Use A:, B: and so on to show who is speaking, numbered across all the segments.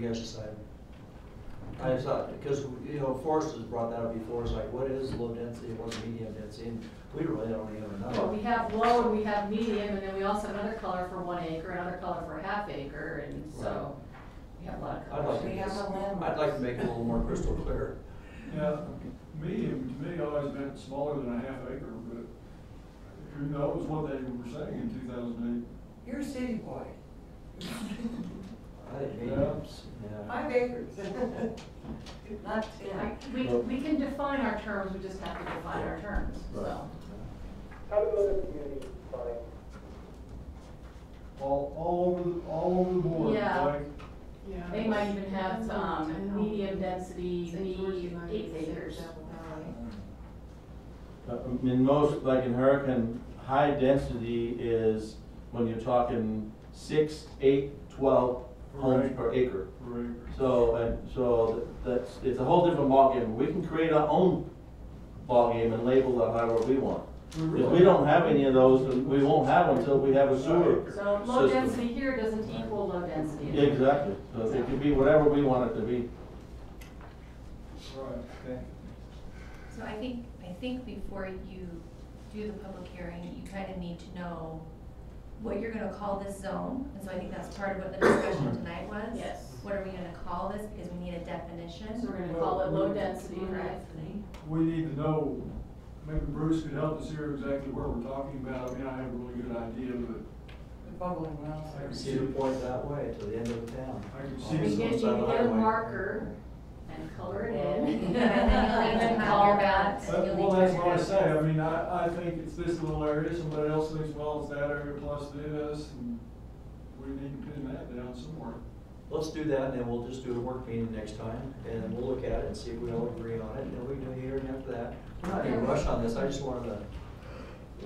A: guys decide. I just thought, because, you know, Forrest has brought that up before, it's like, what is low density, what's medium density, and we really don't even
B: Well, we
A: know.
B: have low and we have medium, and then we also have another color for one acre, another color for a half acre, and so we have a lot
A: I'd
B: of
A: like
B: colors.
A: to,
C: We have a land.
A: I'd like to make it a little more crystal clear.
D: Yeah, medium to me always meant smaller than a half acre, but who knows what they were saying in two thousand
C: You're a city boy.
A: I think mediums, yeah.
C: Five acres. Not
B: I-
C: ten.
B: We, we can define our terms, we just have to define our terms, so.
E: How do other communities define?
D: eight. All, all over, the- all over the board,
B: Yeah.
D: like,
B: They might even have, um, medium density, be eight acres.
F: Uh, In most, like in Hurricane, high density is when you're talking six, eight, twelve homes
D: Right.
F: per acre.
D: for acres.
F: So, and so that's, it's a whole different ballgame. We can create our own ballgame and label it however we want. If we don't have any of those, then we won't have them until we have a sewer.
B: So low
F: System.
B: density here doesn't equal low density.
F: Yeah, Exactly. So it can be whatever we want it to be.
D: Right, okay.
G: So I think, I think before you do the public hearing, you kind of need to know what you're gonna call this zone, and so I think that's part of what the discussion tonight was.
B: Yes.
G: What are we gonna call this, because we need a definition.
B: So we're gonna call it low density, right?
D: We need to know, maybe Bruce could help us here exactly where we're talking about. I mean, I have a really good idea, but
C: The bubbling wells.
D: I
C: are-
D: can
A: See the point that way, to the end of the town.
D: I can see
B: You
D: It's
B: get, you get a marker and color it in.
G: And then you'll need to have your ballots,
D: But-
G: you'll need
D: Well,
G: to
D: that's
G: have
D: what I
G: your
D: say, I
G: ballots.
D: mean, I, I think it's this little area, somebody else thinks, well, it's that area plus this, and we need to pin that down somewhere.
A: Let's do that, and then we'll just do a work meeting next time, and then we'll look at it and see if we all agree on it, and then we can do a hearing after that. We're not in a rush on this, I just wanted to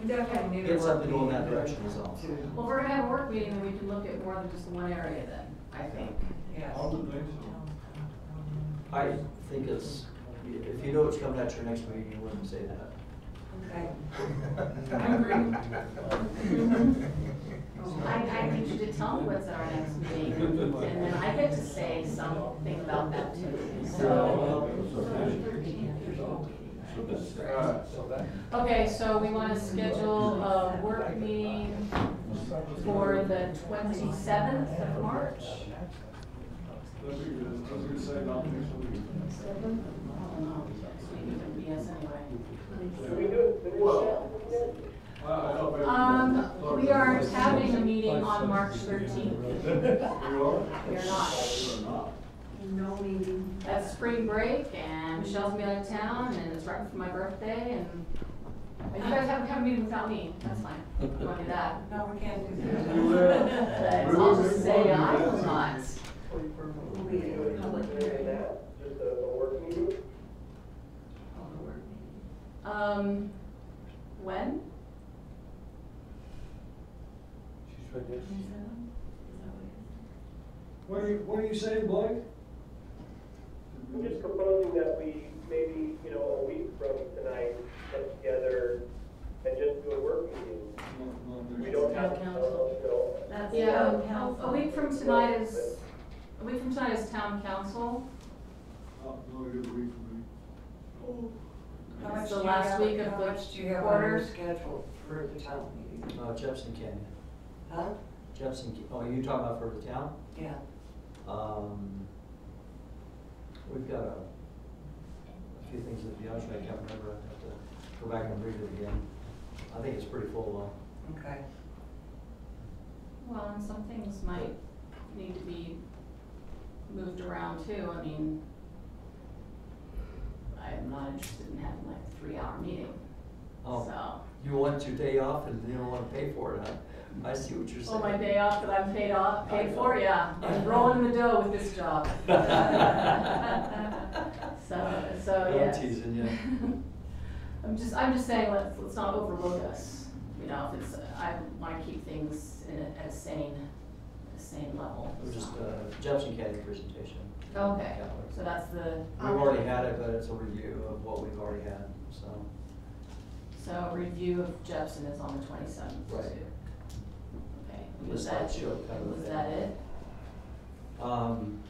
C: We definitely need to.
A: get something going that direction is all.
B: Well, if we're gonna have a work meeting, then we can look at more than just one area then, I think.
C: Yes.
D: I would think so.
A: I think it's, if you know what's coming at your next meeting, you wouldn't say that.
C: Okay.
B: I, I need you to tell me what's at our next meeting, and then I get to say something about that too, so.
F: So that's-
D: Alright,
B: Okay, so we wanna schedule a work meeting for the twenty-seventh of March?
D: that'd be good, I was gonna say, not next week.
B: Yes, anyway.
E: Do we do it the new
D: Well.
E: step?
D: I- I don't think-
B: Um, we are having a meeting on March thirteenth.
D: You are?
B: You're not.
D: You are not.
C: No meeting.
B: That's spring break, and Michelle's gonna be out of town, and it's right for my birthday, and but you guys haven't had a meeting without me, that's fine, we won't do that.
C: No, we can't do
D: You will.
C: that.
B: But I'll just say I will not.
C: We'll
E: Do we
C: be
E: do
C: in
E: it
C: public
E: during
C: hearing.
E: that, just a, a work meeting?
B: Um, when?
D: What are you, what are you saying, Blake?
E: I'm just proposing that we maybe, you know, a week from tonight, get together and just do a work meeting. We don't have, to, you know,
C: That's
B: Yeah,
C: town council.
B: a a week from tonight is, a week from tonight is town council,
D: Not really good week for me.
C: How much
B: It's the
C: do you
B: last
C: have-
B: week of
C: how
B: the
C: much do you have on your
B: quarter.
C: Schedule for the town meeting.
A: Uh, Jefferson Canyon,
C: Huh?
A: Jefferson, Ca- oh, you talking about for the town?
C: Yeah.
A: Um, we've got a, a few things that, be honest, with you, I can't remember, I have to go back and read it again. I think it's pretty full
C: Okay.
B: well, and some things might need to be moved around too, I mean, I'm not interested in having like a three-hour meeting,
A: though.
B: so.
A: Oh, you want your day off and you don't wanna pay for it, huh? I see what you're saying.
B: Oh, my day off that I'm paid off, paid for, yeah. I'm rolling in the dough with this job. So, so,
A: I'm
B: yes.
A: teasing you.
B: I'm just, I'm just saying, let's, let's not overload us, you know, if it's, I wanna keep things in a, at a sane, a sane level.
A: It was Just, uh, Jefferson Canyon presentation.
B: Okay,
A: Yeah.
B: so um, that's the,
A: We've already had it, but it's a review of what we've already had, so.
B: so review of Jepson is on the twenty-seventh.
A: Right.
B: Okay,
A: Just
B: was
A: like
B: that,
A: she'll cover
B: was
A: that.
B: that it?
A: Um,